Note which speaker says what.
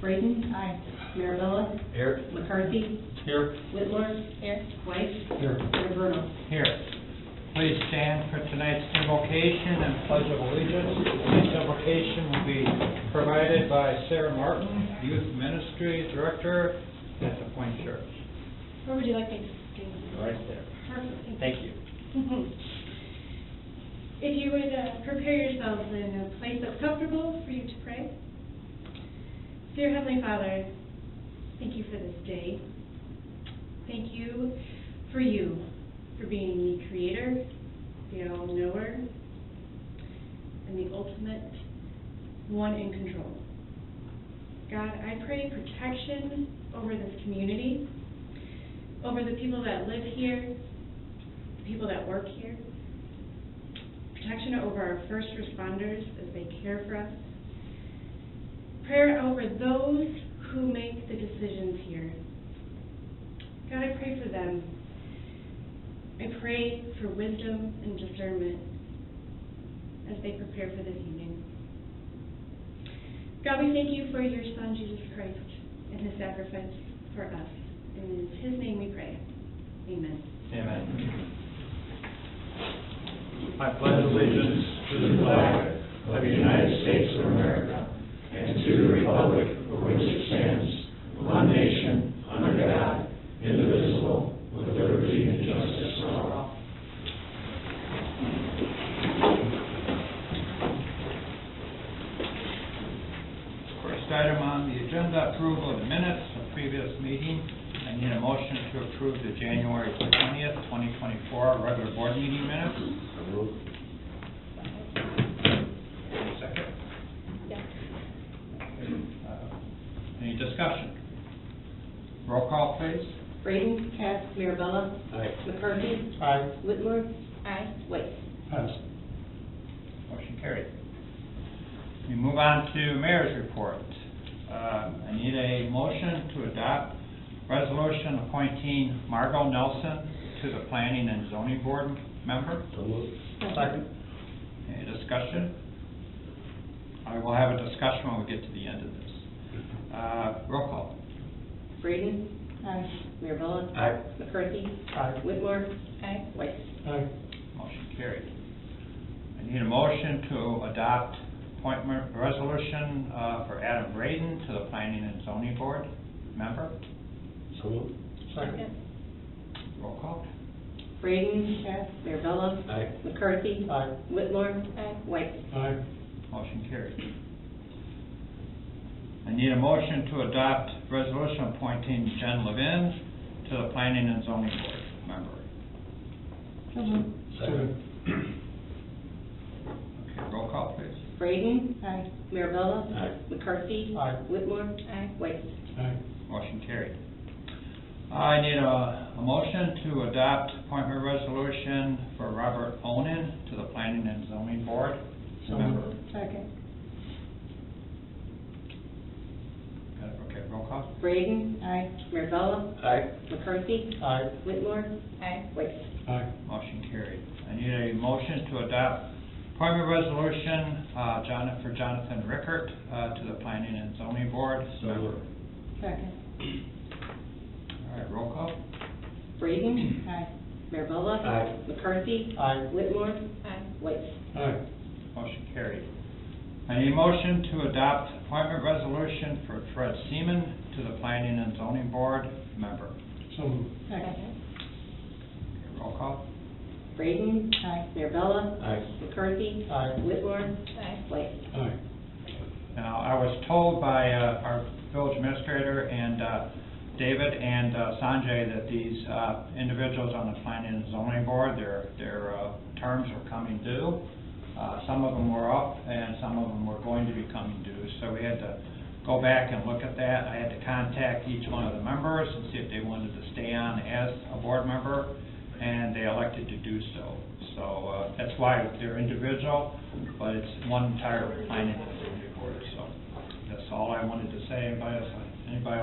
Speaker 1: Braden. Aye. Mirabella.
Speaker 2: Here.
Speaker 1: McCarthy.
Speaker 2: Here.
Speaker 1: Whitmore. Here. White.
Speaker 2: Here.
Speaker 1: Severino.
Speaker 2: Here. Please stand for tonight's invocation and pledge of allegiance. This invocation will be provided by Sarah Martin, Youth Ministry Director at the Point Church.
Speaker 1: Where would you like me to do?
Speaker 2: Right there.
Speaker 1: Perfect.
Speaker 2: Thank you.
Speaker 3: If you would uh, prepare yourselves in a place that's comfortable for you to pray. Dear Heavenly Father, thank you for this day. Thank you for you, for being the creator, the all-knower, and the ultimate one in control. God, I pray protection over this community, over the people that live here, the people that work here, protection over our first responders as they care for us, prayer over those who make the decisions here. God, I pray for them. I pray for wisdom and discernment as they prepare for this evening. God, we thank you for your Son, Jesus Christ, and his sacrifice for us. In his name we pray. Amen.
Speaker 2: Amen. I pledge allegiance
Speaker 4: to the flag of the United States of America and to the republic for which it stands, one nation, under God, indivisible, with liberty and justice for all.
Speaker 2: First item on the agenda, approval of the minutes of previous meeting. I need a motion to approve the January twentieth, twenty twenty-four regular board meeting minutes. Any Second. Uh, Any discussion? Roll call, please.
Speaker 1: Braden. Aye. Mirabella.
Speaker 2: Aye.
Speaker 1: McCarthy.
Speaker 2: Aye.
Speaker 1: Whitmore. Aye. White.
Speaker 2: Motion carried. We move on to mayor's report. Uh, I need a motion to adopt resolution appointing Margot Nelson to the planning and zoning board member.
Speaker 4: Second.
Speaker 2: Any discussion? I will have a discussion when we get to the end of this. Uh, roll call.
Speaker 1: Braden. Aye. Mirabella.
Speaker 2: Aye.
Speaker 1: McCarthy.
Speaker 2: Aye.
Speaker 1: Whitmore. Aye. White.
Speaker 2: Motion carried. I need a motion to adopt appointment resolution, uh, for Adam Braden to the planning and zoning board member.
Speaker 4: So moved.
Speaker 2: Second. Roll call.
Speaker 1: Braden. Mirabella.
Speaker 4: Aye.
Speaker 1: McCarthy.
Speaker 2: Aye.
Speaker 1: Whitmore. Aye. White.
Speaker 4: Aye.
Speaker 2: Motion carried. I need a motion to adopt resolution appointing Jen Levin to the planning and zoning board member.
Speaker 4: Second.
Speaker 2: Okay, roll call, please.
Speaker 1: Braden. Aye. Mirabella.
Speaker 4: Aye.
Speaker 1: McCarthy.
Speaker 2: Aye.
Speaker 1: Whitmore. Aye. White.
Speaker 4: Aye.
Speaker 2: Motion carried. I need a, a motion to adopt appointment resolution for Robert Onan to the Planning and Zoning Board. Member.
Speaker 1: Second.
Speaker 2: Got it, Okay, roll call.
Speaker 1: Braden. Aye. Mirabella.
Speaker 4: Aye.
Speaker 1: McCarthy.
Speaker 2: Aye.
Speaker 1: Whitmore. Aye. White.
Speaker 4: Aye.
Speaker 2: Motion carried. I need a motion to adopt appointment resolution, uh, Jonathan, for Jonathan Rickert, uh, to the Planning and Zoning Board. Member.
Speaker 1: Second.
Speaker 2: All right, roll call.
Speaker 1: Braden. Aye. Mirabella.
Speaker 4: Aye.
Speaker 1: McCarthy.
Speaker 2: Aye.
Speaker 1: Whitmore. Aye. White.
Speaker 4: Aye.
Speaker 2: Motion carried. I need a motion to adopt appointment resolution for Fred Seaman to the Planning and Zoning Board. Member.
Speaker 4: So moved.
Speaker 1: Second.
Speaker 2: Okay, Roll call.
Speaker 1: Braden. Aye. Mirabella.
Speaker 4: Aye.
Speaker 1: McCarthy.
Speaker 2: Aye.
Speaker 1: Whitmore. Aye. White.
Speaker 4: Aye.
Speaker 2: Now, I was told by uh, our village administrator and uh, David and uh, Sanjay that these uh, individuals on the planning and zoning board, their, their uh, terms are coming due. Uh, Some of them were up and some of them were going to be coming due, so we had to go back and look at that. I had to contact each one of the members and see if they wanted to stay on as a board member, and they elected to do so. So uh, that's why they're individual, but it's one entire planning and zoning board, so that's all I wanted to say. Anybody else, anybody